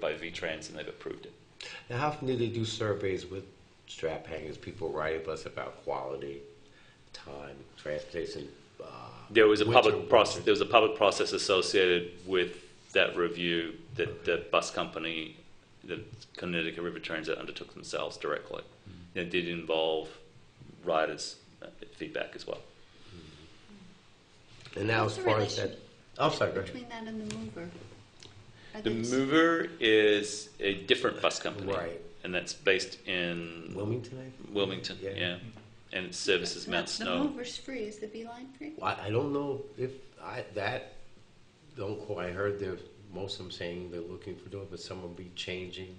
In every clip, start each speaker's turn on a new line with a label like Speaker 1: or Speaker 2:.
Speaker 1: by V-Trans, and they've approved it.
Speaker 2: Now, how often do they do surveys with strap hangers? People writing us about quality, time, transportation. Uh,
Speaker 1: There was a
Speaker 2: winter
Speaker 1: public process,
Speaker 2: weather.
Speaker 1: there was a public process associated with that review that the bus company, the Connecticut River Transit undertook themselves directly.
Speaker 2: Mm-hmm.
Speaker 1: And it did involve riders' uh, feedback as well.
Speaker 2: And now, as
Speaker 3: What's the
Speaker 2: far as that,
Speaker 3: relation
Speaker 2: I'm sorry, go ahead.
Speaker 3: Between that and the mover. Are
Speaker 1: The
Speaker 3: they the
Speaker 1: mover is a different bus company.
Speaker 2: Right.
Speaker 1: And that's based in
Speaker 2: Wilmington. I think?
Speaker 1: Wilmington,
Speaker 2: Yeah.
Speaker 1: yeah. And it services
Speaker 3: same?
Speaker 1: Mount
Speaker 3: The-
Speaker 1: Snow.
Speaker 3: The mover's free, is the beeline free?
Speaker 2: Well, I I don't know if I that. Don't quote. I heard there's most of them saying they're looking for doing, but some will be changing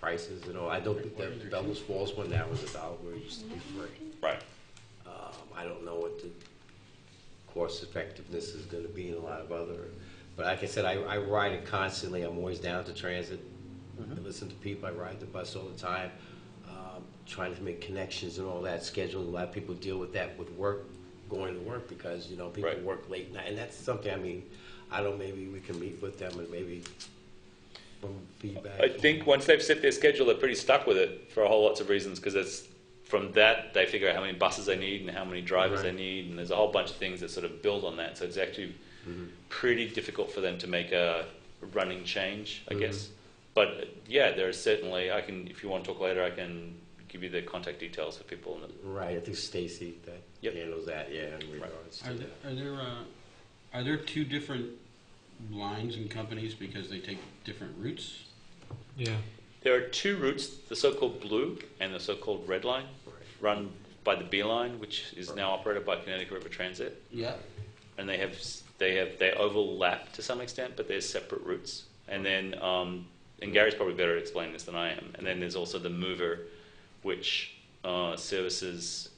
Speaker 2: prices and all. I don't think that Bellows Falls one now is a dollar where it used to be free.
Speaker 1: Right.
Speaker 2: Um, I don't know what the cost effectiveness is gonna be in a lot of other, but like I said, I, I ride it constantly, I'm always down to transit.
Speaker 1: Mm-hmm.
Speaker 2: I listen to people, I ride the bus all the time, um, trying to make connections and all that, scheduling, a lot of people deal with that with work, going to work, because, you know, people
Speaker 1: Right.
Speaker 2: work late night, and that's something, I mean, I don't, maybe we can meet with them and maybe from feedback.
Speaker 1: I think once they've set their schedule, they're pretty stuck with it for a whole lots of reasons because it's from that they figure out how many buses they need and how many drivers they
Speaker 2: Right.
Speaker 1: need, and there's a whole bunch of things that sort of build on that. So it's actually
Speaker 2: Mm-hmm.
Speaker 1: pretty difficult for them to make a running change,
Speaker 2: Mm-hmm.
Speaker 1: I guess. But uh, yeah, there is certainly. I can, if you want to talk later, I can give you the contact details for people. And
Speaker 2: Right, I think Stacy that
Speaker 1: Yep.
Speaker 2: handles that, yeah, in regards to
Speaker 4: Are
Speaker 2: that.
Speaker 4: there, are there, uh, are there two different lines and companies because they take different routes?
Speaker 5: Yeah.
Speaker 1: There are two routes: the so-called blue and the so-called red line,
Speaker 2: Right.
Speaker 1: run by the B line, which is now operated by Connecticut River Transit.
Speaker 4: Yeah.
Speaker 1: and they have they have they overlap to some extent, but they're separate routes. And then um, and Gary's probably better at explaining this than I am. And then there's also the mover, which uh, services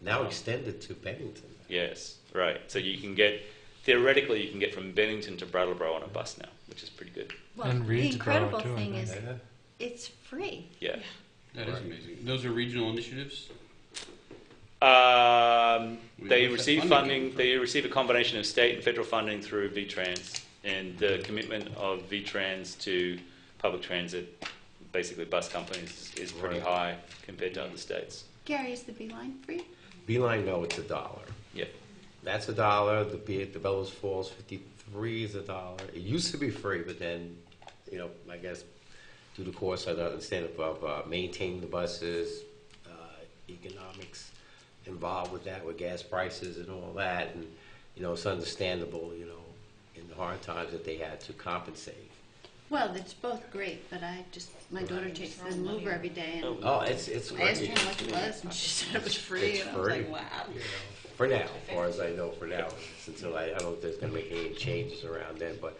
Speaker 2: Now extended to Bennington.
Speaker 1: yes right. So you can get theoretically you can get from Bennington to Brattleboro on a bus now, which is pretty good.
Speaker 3: Well,
Speaker 5: And
Speaker 3: the
Speaker 5: Reed's Borough,
Speaker 3: incredible
Speaker 5: too, I
Speaker 3: thing
Speaker 5: think.
Speaker 3: is, it's free.
Speaker 1: Yeah.
Speaker 4: That is
Speaker 2: Right.
Speaker 4: amazing. Those are regional initiatives?
Speaker 1: Um,
Speaker 4: We
Speaker 1: they
Speaker 4: wish that
Speaker 1: receive
Speaker 4: funding
Speaker 1: funding.
Speaker 4: came
Speaker 1: They receive a combination of state and federal funding through VTrans, and the commitment of VTrans to public transit, basically bus companies, is, is pretty
Speaker 2: Right.
Speaker 1: high compared to other states.
Speaker 3: Gary, is the beeline free?
Speaker 2: Beeline, no, it's a dollar.
Speaker 1: Yeah,
Speaker 2: That's a dollar. The Be- the Bellows Falls 53 is a dollar. It used to be free, but then, you know, I guess due to course, I don't understand of uh, maintaining the buses, uh, economics involved with that, with gas prices and all that, and you know, it's understandable, you know, in the hard times that they had to compensate.
Speaker 3: Well, it's both great, but I just, my daughter takes the mover every day and
Speaker 2: Oh, it's it's
Speaker 3: I asked her
Speaker 2: free
Speaker 3: how much it was and she said it was free
Speaker 2: It's
Speaker 3: and I was like,
Speaker 2: free.
Speaker 3: wow.
Speaker 2: for now, as far as I know for now. It's Until I, I don't know if there's gonna make any changes around then, but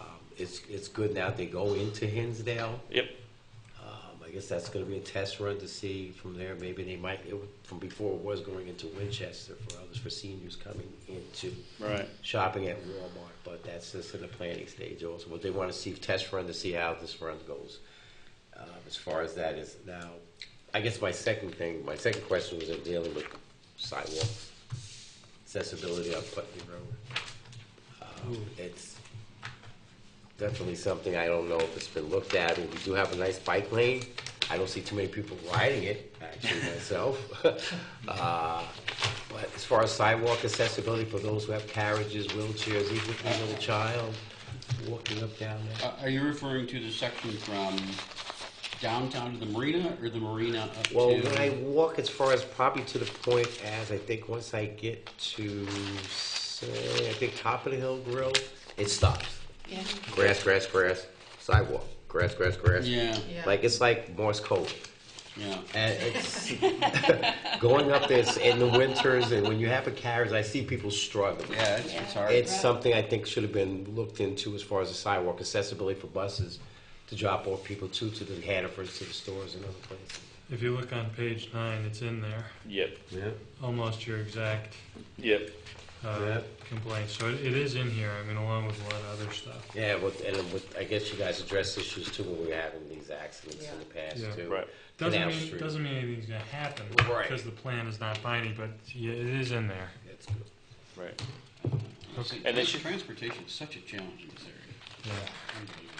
Speaker 2: um, it's it's good now. They go into Hinsdale.
Speaker 1: yep.
Speaker 2: Um, I guess that's going to be a test run to see from there. Maybe they might, it, wa- from before it was going into Winchester for others, for seniors coming into
Speaker 1: Right.
Speaker 2: shopping at Walmart, but that's just in the planning stage also. But they want to see test run to see how this run goes. Uh, as far as that is now, I guess my second thing, my second question was in dealing with sidewalks, accessibility on Putney Road. Um, it's definitely something I don't know if it's been looked at. We do have a nice bike lane. I don't see too many people riding it, actually, myself. Uh, But as far as sidewalk accessibility for those who have carriages, wheelchairs, even if there's a little child walking up down there.
Speaker 4: Uh, Are you referring to the section from downtown to the marina or the marina up
Speaker 2: Well, when I
Speaker 4: to?
Speaker 2: walk, as far as probably to the point as, I think once I get to, say, I think Top of the Hill Grill, it stops.
Speaker 3: Yeah.
Speaker 2: Grass, grass, grass, sidewalk, grass, grass, grass.
Speaker 4: Yeah,
Speaker 2: Like, it's like Morse code.
Speaker 4: yeah.
Speaker 2: And it's going up this in the winters, and when you have a carriage, I see people struggling.
Speaker 4: Yeah, it's, it's hard.
Speaker 2: It's something I think should have been looked into as far as the sidewalk accessibility for buses to drop off people too to the Hannafords, to the stores, and other places.
Speaker 5: If you look on page nine, it's in there,
Speaker 1: Yep.
Speaker 2: Yeah.
Speaker 5: almost your exact
Speaker 1: Yep.
Speaker 5: uh,
Speaker 2: Yeah.
Speaker 5: complaint. So it, it is in here. I mean, along with a lot of other stuff.
Speaker 2: Yeah, well, and with, I guess you guys address issues too when we were having these accidents in the
Speaker 5: Yeah.
Speaker 2: past too.
Speaker 1: Right.
Speaker 5: Doesn't
Speaker 2: Canal
Speaker 5: mean,
Speaker 2: Street.
Speaker 5: doesn't mean anything's gonna happen
Speaker 2: Right.
Speaker 5: because the plan is not binding, but yeah, it is in there.
Speaker 2: That's good.
Speaker 1: Right.
Speaker 4: It's-
Speaker 1: And they should-
Speaker 4: Transportation is such a challenge in this area.
Speaker 5: Yeah.
Speaker 4: Unbelievable.